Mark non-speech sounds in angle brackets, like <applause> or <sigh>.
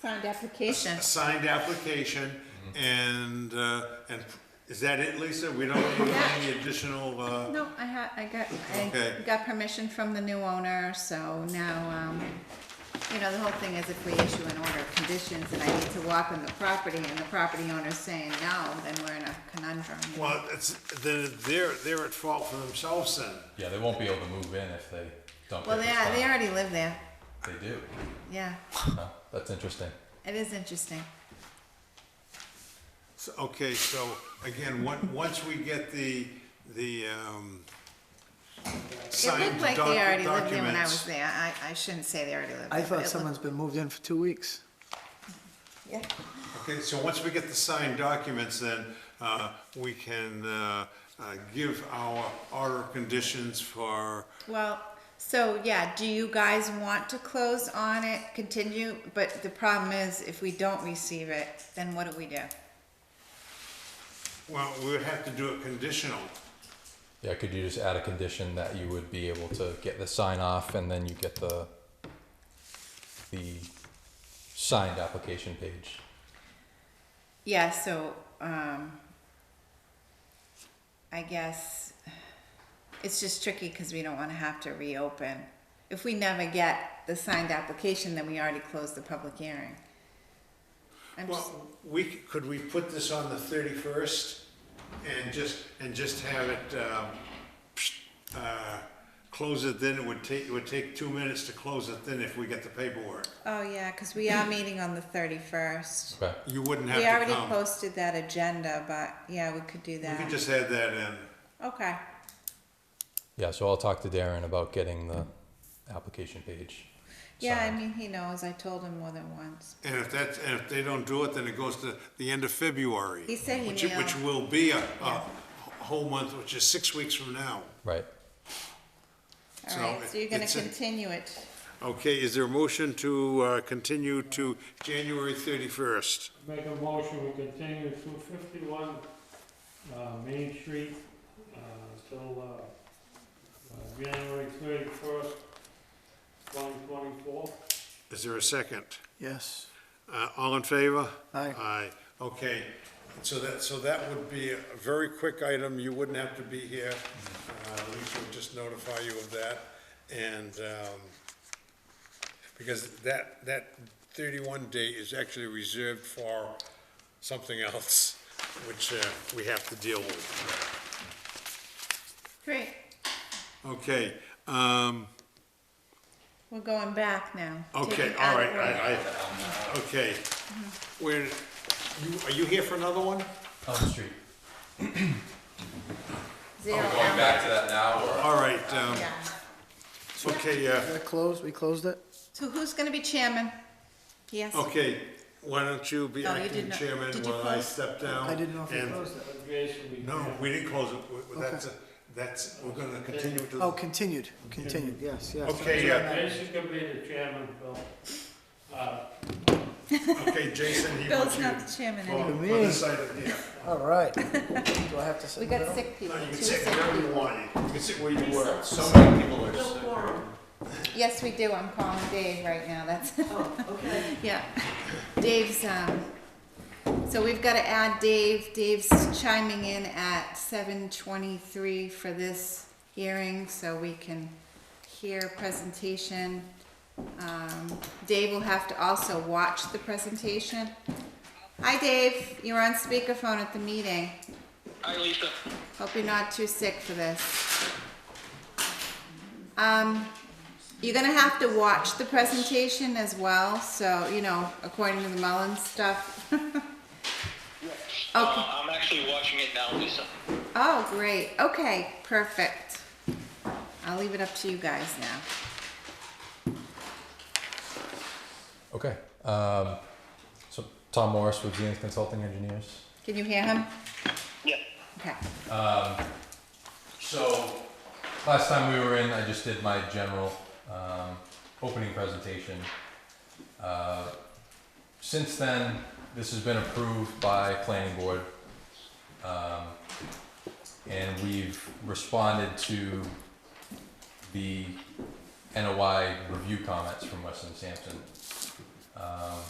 signed application. a signed application, and, uh, and is that it, Lisa? We don't need any additional, uh, No, I had, I got, I Okay. got permission from the new owner, so now, um, you know, the whole thing is if we issue an order of conditions and I need to walk on the property and the property owner's saying no, then we're in a conundrum. well, it's, then they're, they're at fault for themselves then. Yeah, they won't be able to move in if they don't Well, get they, this are- they done. already live there, They do. yeah, Huh, That's interesting. it is interesting. So, okay, so again, on- once we get the, the, um, It signed looked like doc- they already lived there when I was documents. there, I, I shouldn't say they already lived there. but I it thought looked- someone's been moved in for two weeks. Yeah, Okay, so once we get the signed documents, then, uh, we can, uh, uh, give our order of conditions for, well, so, yeah, do you guys want to close on it, continue? But the problem is, if we don't receive it, then what do we do? well, we would have to do it conditional. Yeah, could you just add a condition that you would be able to get the sign off and then you get the, the signed application page? Yeah, so, um, I guess it's just tricky because we don't want to have to reopen. If we never get the signed application, then we already closed the public hearing. I'm just, Well, we, c- could we put this on the thirty-first and just, and just have it, um, uh, close it then, it would take, it would take two minutes to close it then if we get the paperwork. oh yeah, because we are meeting on the thirty-first. Okay, You wouldn't We have already to come. posted that agenda, but yeah, we could do We could that. just add that in. Okay, yeah, so I'll talk to Darren about getting the application page. yeah, I signed. mean, he knows, I told him more than once. And if that's, and if they don't do it, then it goes to the end of February. He said he which- mailed- Which will be a, a whole month, which is six weeks from now. Right, All So right, so you're gonna it's a- continue it. Okay, is there a motion to, uh, continue to January thirty-first? Make a motion, we continue two fifty-one, uh, Main Street, uh, till, uh, uh, January thirty-first, twenty twenty-four. Is there a second? Yes. Uh, all in favor? Aye. Aye, okay, so that, so that would be a very quick item, you wouldn't have to be here. Uh, Lisa would just notify you of that, and, um, because that, that thirty-one day is actually reserved for something else, which, uh, we have to deal with. Great, Okay, um, we're going back now. okay, Taking all out right, order. I, I, okay. Where, you, are you here for another one? on the street. Zero out. to that now or? All right, um, Yeah. okay, uh, Is that closed? We closed it? So who's gonna be chairman? Yes. Okay, why don't you be No, you did acting not. chairman Did you while I close? step down? I didn't know if we and- closed it. Jason, we. No, we didn't close it, We- we- that's, a- that's, we're gonna continue to. Oh, continued, continued, yes, yes. Okay, yeah, Jason could be the chairman, Bill. Uh, okay, Jason, he Bill's wants you. not the chairman Well, anymore. on Me. this side of- yeah. All right. Do I have to sit We in the got middle? sick people, No, you two can sit sick wherever you people. want, you can sit where you were. So many people are sick. Yes, we do, I'm calling Dave right now, that's. okay. <laughs> Yeah, Dave's, um, so we've gotta add Dave, Dave's chiming in at seven twenty-three for this hearing, so we can hear presentation. Um, Dave will have to also watch the presentation. Hi, Dave, you're on speakerphone at the meeting. Hi, Lisa. Hope you're not too sick for this. Um, you're gonna have to watch the presentation as well, so, you know, according to the Mullins stuff. <laughs> Okay, Uh, I'm actually watching it now, Lisa. oh, great, okay, perfect. I'll leave it up to you guys now. Okay, um, so Tom Morris with Zenith Consulting Engineers. Can you hear him? Yeah. Okay, So, last time we were in, I just did my general um, opening presentation. Uh, Since then, this has been approved by planning board. um, And we've responded to the NOI review comments from Weston Sampson. Um,